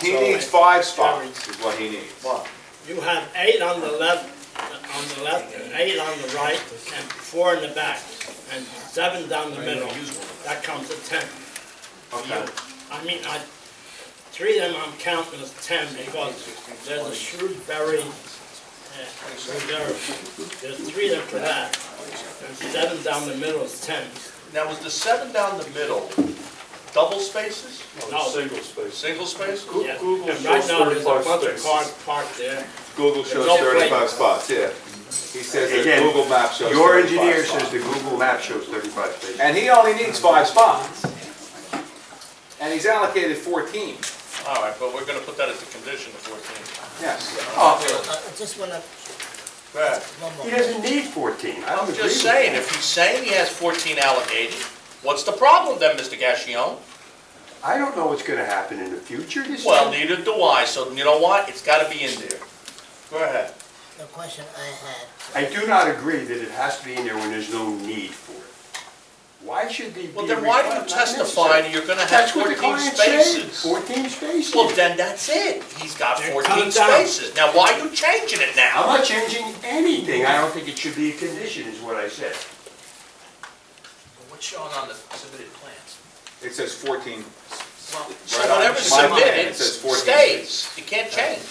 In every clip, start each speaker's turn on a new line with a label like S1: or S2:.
S1: He
S2: So
S1: needs
S2: it-
S1: five spots, is what he needs.
S2: Well,
S3: You have eight on the left, on the left, and eight on the right, and four in the back, and seven down the middle. That comes to ten.
S1: Okay.
S3: I mean, I, three of them I'm counting as ten because there's a Shrewsbury, uh, reserve. There's three of them for that. And seven down the middle is ten.
S2: now was the seven down the middle, double spaces,
S4: Oh,
S3: No.
S4: Single space.
S2: single spaces?
S4: Goo-
S3: Yeah.
S4: Google
S3: And right
S4: shows
S3: now, there's a
S4: 35
S3: bunch of
S4: spaces.
S3: cars parked there.
S1: Google shows
S3: No, wait.
S1: thirty-five spots, yeah. He says that
S5: Again,
S1: Google Map shows
S5: Your
S1: thirty-five
S5: engineer
S1: spots.
S5: says the Google map shows 35 spaces.
S1: And he only needs five spots. And he's allocated fourteen,
S2: All right, but we're gonna put that as a condition of fourteen.
S1: yes.
S6: I Uh, just want to,
S2: Right.
S6: one more.
S5: He doesn't need 14. I don't
S2: I'm
S5: agree with
S2: just
S5: that.
S2: saying, if he's saying he has fourteen allocated, what's the problem then, Mr. Gassion?
S5: I don't know what's going to happen in the future. This
S2: Well,
S5: is-
S2: neither do I, so you know what? It's gotta be in there. Go ahead.
S6: the question I had,
S5: I do not agree that it has to be in there when there's no need for it. Why should they be?
S2: Well, then why do you
S5: required? Not
S2: testify
S5: necessary.
S2: that you're gonna have
S5: That's what the
S2: fourteen
S5: client said,
S2: spaces?
S5: 14 spaces.
S2: Well, then that's it. He's got
S3: They're
S2: fourteen
S3: coming down.
S2: spaces. Now, why are you changing it
S5: I'm
S2: now?
S5: not changing anything. I don't think it should be a condition, is what I said.
S7: What's shown on the submitted plans?
S1: It says fourteen.
S2: So
S1: Right on.
S2: whatever's
S1: My plan,
S2: submitted
S1: it says 14
S2: stays. You can't change.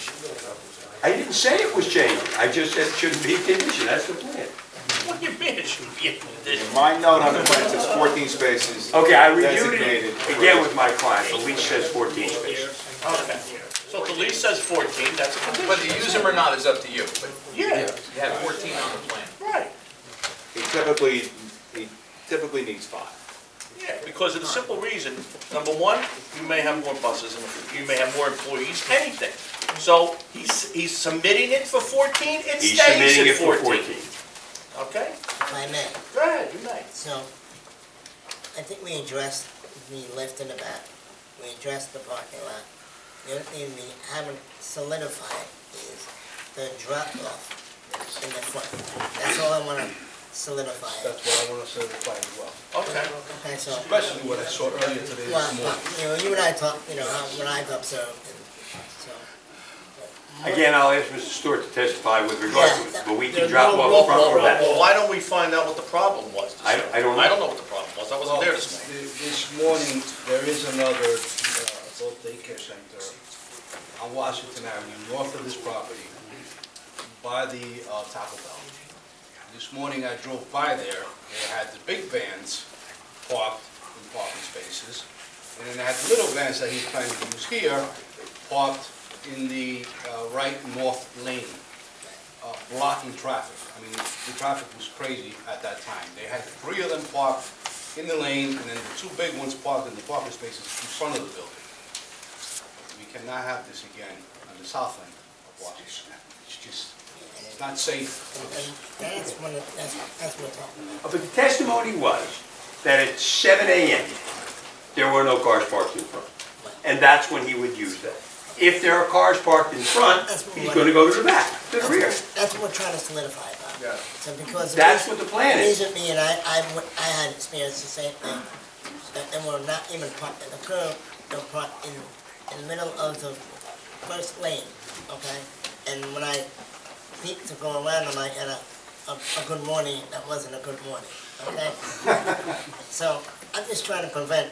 S5: I didn't say it was changing. I just said it shouldn't be a condition. That's the plan.
S2: What do you mean it should be a condition?
S1: My note on the plan says fourteen spaces.
S5: Okay, I reviewed
S1: Designated
S5: it
S1: for-
S5: again with my client. The lease says 14 spaces.
S2: Okay. So if the lease says fourteen, that's a condition.
S7: Whether you use them or not is up to you, but
S2: Yeah,
S7: you have 14 on the plan.
S2: right.
S1: He typically, he typically needs five.
S2: Yeah, because of the simple reason, number one, you may have more buses, and you may have more employees, anything. So he's, he's submitting it for fourteen, it
S5: He's
S2: stays
S5: submitting
S2: at
S5: it for
S2: fourteen.
S5: 14.
S2: Okay?
S6: if I may.
S2: Go ahead, you may.
S6: So, I think we addressed the lift in the back, we addressed the parking lot. The only thing we haven't solidified is the drop-off in the front. That's all I want to solidify.
S8: That's what I want to certify as well,
S2: Okay.
S6: Okay, so,
S8: especially what I saw earlier today
S6: well,
S8: this morning.
S6: you know, you and I talked, you know, how- what I've observed, and so.
S5: Again, I'll ask Mr. Stewart to testify with regard to it, but we can
S3: There's
S5: drop
S3: no
S5: off
S3: walk-
S5: front or
S2: Well,
S5: back.
S2: well, why don't we find out what the problem was? this
S5: I-
S2: morning?
S5: I don't know.
S2: I don't know what the problem was, I wasn't there this morning.
S8: Th- This morning, there is another uh, adult daycare center on Washington Avenue, north of this property, by the uh, Taco Bell. This morning, I drove by there, they had the big vans parked in parking spaces, and then they had the little vans that he's planning to use here parked in the uh, right north lane, uh, blocking traffic. I mean, the traffic was crazy at that time. They had three of them parked in the lane, and then the two big ones parked in the parking spaces in front of the building. We cannot have this again on the south end of Washington. It's just, it's not safe.
S6: And that's one of, that's, that's what we're talking about.
S5: But the testimony was that at seven AM, there were no cars parked in front. And that's when he would use that. If there are cars parked in front, he's gonna go to the back, to the rear.
S6: That's- That's what we're trying to solidify about. Yeah. So because.
S5: That's what the plan
S6: These
S5: is.
S6: are me and I, I, w- I had experienced the same thing. That they were not even parked in the curb, they were parked in, in the middle of the first lane, okay? And when I peeked to go around, I'm like, and a, a, a good morning, that wasn't a good morning, okay? So I'm just trying to prevent,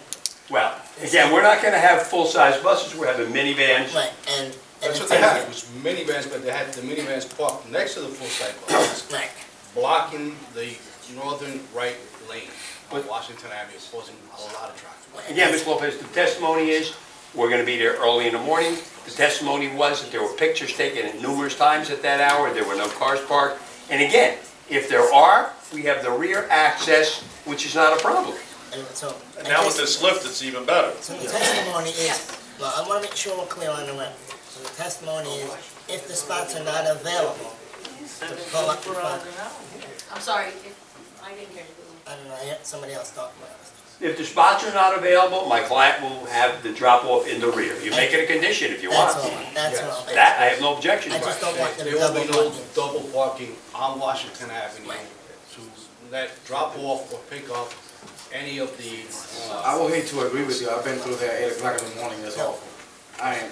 S5: Well, again, we're not gonna have full-size buses, we're having minivans.
S6: right, and. and
S8: That's
S6: it's-
S8: what they had, it was minivans, but they had the minivans parked next to the full sidewalks,
S6: Right.
S8: blocking the northern right lane of Washington Avenue, causing a lot of traffic.
S5: Again, Ms. Lopez, the testimony is, we're gonna be there early in the morning. The testimony was that there were pictures taken at numerous times at that hour, there were no cars parked. And again, if there are, we have the rear access, which is not a problem.
S6: And so.
S2: And
S6: I
S2: now with
S6: just-
S2: this lift, it's even better.
S6: So the testimony is, well, I want to make sure we're clear on the record. So the testimony is, if the spots are not available, to pull up the front.
S9: I'm sorry, if- I didn't hear you.
S6: I don't know, I heard somebody else talk about this.
S5: If the spots are not available, my client will have the drop-off in the rear. You make it a condition if you
S6: That's
S5: want.
S6: all, that's all.
S5: That, I have no objection
S6: I just
S5: to.
S6: don't want them
S8: There will be
S6: double
S8: no
S6: parking.
S8: double parking on Washington Avenue to let drop off or pick up any of the. uh,
S10: I will hate to agree with you, I've been through there at eight o'clock in the morning, that's awful. I am